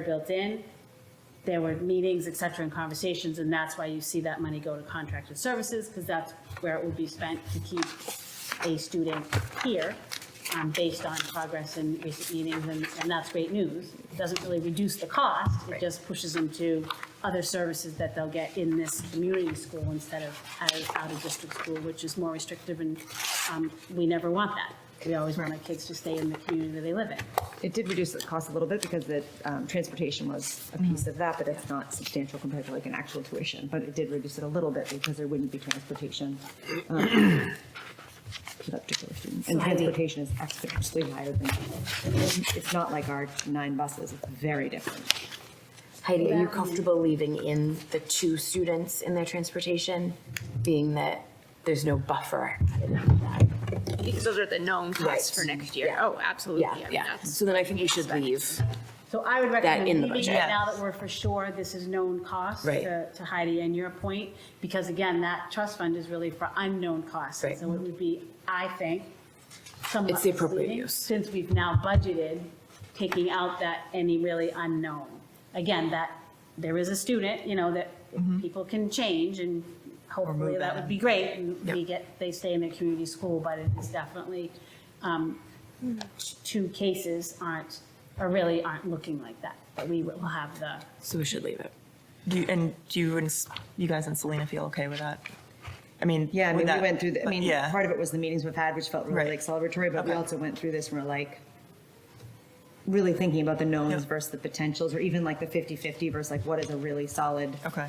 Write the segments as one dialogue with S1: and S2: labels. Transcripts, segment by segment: S1: built in, there were meetings, et cetera, and conversations, and that's why you see that money go to contracted services, because that's where it would be spent to keep a student here, um, based on progress in recent meetings, and, and that's great news. It Doesn't really reduce the cost, it just pushes them to other services that they'll get in this community school instead of out of, out of district school, which is more restrictive, and, um, we never want that. We always want our kids to stay in the community that they live in.
S2: It did reduce the cost a little bit because the um, transportation was a piece of that, but it's not substantial compared to like an actual tuition. But it did reduce it a little bit because there wouldn't be transportation um, for that particular student. And transportation is exponentially higher than, it's not like our nine buses, it's very different.
S3: Heidi, are you comfortable leaving in the two students in their transportation, being that there's no buffer? added on to that?
S4: Because those are the known costs for
S3: Right.
S4: next year.
S3: Yeah.
S4: Oh, absolutely. I
S3: Yeah,
S4: mean,
S3: yeah.
S4: that's-
S3: So then I think you should leave.
S1: So I would recommend
S3: in the
S1: leaving it
S3: budget.
S1: now that we're for sure this is known cost
S3: Right.
S1: to to Heidi and your point, because again, that trust fund is really for unknown costs.
S3: Right.
S1: So it would be, I think, somewhat.
S3: It's the appropriate
S1: misleading,
S3: use.
S1: Since we've now budgeted, taking out that any really unknown. Again, that, there is a student, you know, that
S3: Mm-hmm.
S1: people can change and hopefully that would be great. And we get, they stay in their community school, but it is definitely um, two cases aren't, or really aren't looking like that, but we will have the,
S3: So we should leave it.
S5: Do you, and do you and S- you guys and Selena feel okay with that? I mean,
S2: Yeah, I
S5: would
S2: mean, we
S5: that-
S2: went through, the- I mean,
S5: yeah,
S2: part of it was the meetings we've had, which felt really
S5: Right.
S2: celebratory, but we
S5: Okay.
S2: also went through this and we're like, really thinking about the
S5: Yeah.
S2: knowns versus the potentials, or even like the 50/50 versus like, what is a really solid,
S5: okay,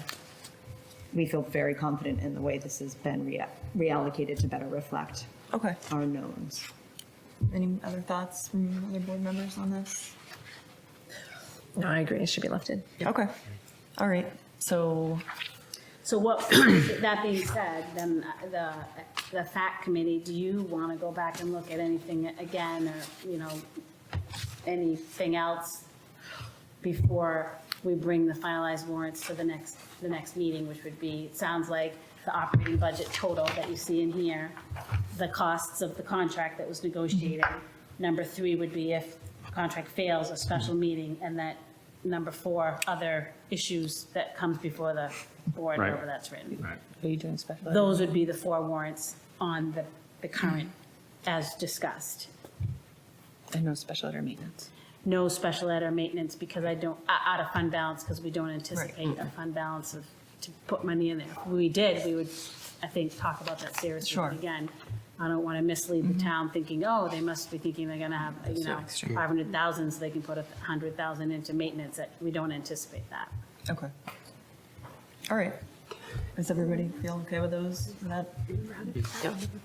S2: we feel very confident in the way this has been rea- reallocated to better reflect
S5: okay.
S2: our knowns.
S5: Any other thoughts from other board members on this?
S6: No, I agree. It should be lifted.
S5: Okay, all right. So
S1: so what, that being said, then the, the fact committee, do you want to go back and look at anything again, or, you know, anything else before we bring the finalized warrants to the next, the next meeting, which would be, it sounds like the operating budget total that you see in here, the costs of the contract that was negotiated. Number three would be if contract fails, a special meeting, and that, number four, other issues that comes before the board,
S7: Right.
S1: however that's written.
S7: Right.
S1: Those would be the four warrants on the, the current, as discussed.
S6: And no special ed or maintenance.
S1: no special ed or maintenance because I don't, o- out of fund balance, because we don't anticipate a fund balance of, to put money in there. If we did, we would, I think, talk about that seriously.
S5: Sure. Mm-hmm.
S1: But Again, I don't want to mislead the town thinking, oh, they must be thinking they're going to have, you know,
S5: extreme.
S1: 500,000 so they can put a 100,000 into maintenance. That We don't anticipate that.
S5: okay, all right. Does everybody feel okay with those? with That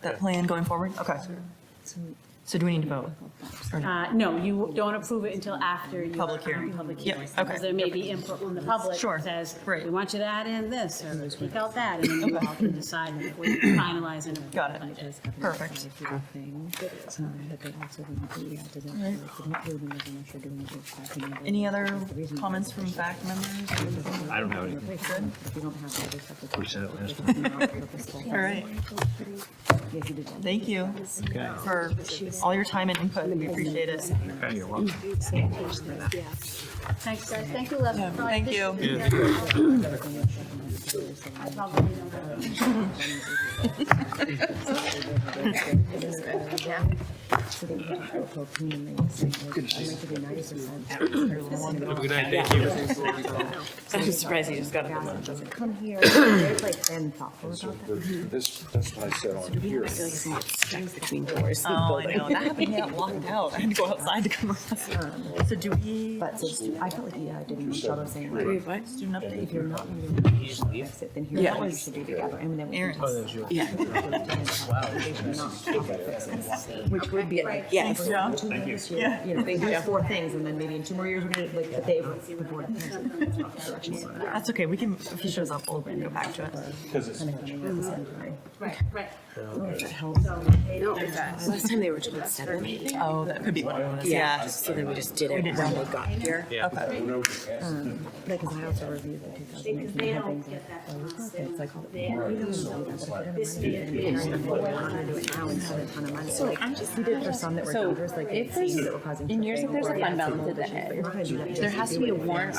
S5: that plan going forward? Okay. So do we need to vote? Or no?
S1: Uh, No, you don't approve it until after you.
S5: Public hearing.
S1: um, Public
S5: Yeah,
S1: hearing.
S5: okay.
S1: Because there may be input from the public.
S5: Sure,
S1: that Says,
S5: right.
S1: we want you to add in this or take out that, and then you all can decide when you finalize and. approve the
S5: Got it.
S1: budget.
S5: Perfect.
S2: um,
S5: Any other comments from fact members?
S7: I don't have anything. We said it last time.
S5: All right. Thank you
S7: Okay.
S5: for all your time and input. We appreciate it.
S7: Okay, you're welcome.
S1: Thanks, guys. Thank you, Leslie.
S5: Thank you.
S7: Have a good night. Thank you.
S3: I'm surprised you just got it.
S2: Come here, they've like been thoughtful about that.
S8: This, that's what I said on here.
S3: I feel like it's not stuck between doors.
S5: Oh, I know. That happened. Yeah, locked out. I had to go outside to come. So do we
S2: But so stu- I felt like EI didn't reach out and saying like,
S3: What?
S5: student
S2: if
S5: update?
S2: you're not going to do it, then here's what you should do together. And then we can
S5: Aaron.
S2: just-
S3: Yeah,
S2: Which would be like,
S3: Yes.
S2: for
S5: Yeah.
S2: two years, you know, you know, they do four things, and then maybe in two more years, we're gonna, like, the day of the board.
S5: That's okay. We can, if he shows up, we'll go back to it.
S3: last time they were told seven, maybe.
S5: Oh, that could be one of those. Yeah.
S3: So then we just did it when they got here. Um,
S5: Okay.
S2: Like, 'cause I also reviewed the two thousand nineteen. It's like, all the- this year. I'm just. We did for some that were
S6: So
S2: numbers, like
S6: if
S2: things
S6: there's-
S2: that were causing.
S6: in years, if
S2: tripping
S6: there's a
S2: or-
S6: fund balance at the
S2: But you're
S6: end,
S2: not gonna do that.
S6: there has to be a warrant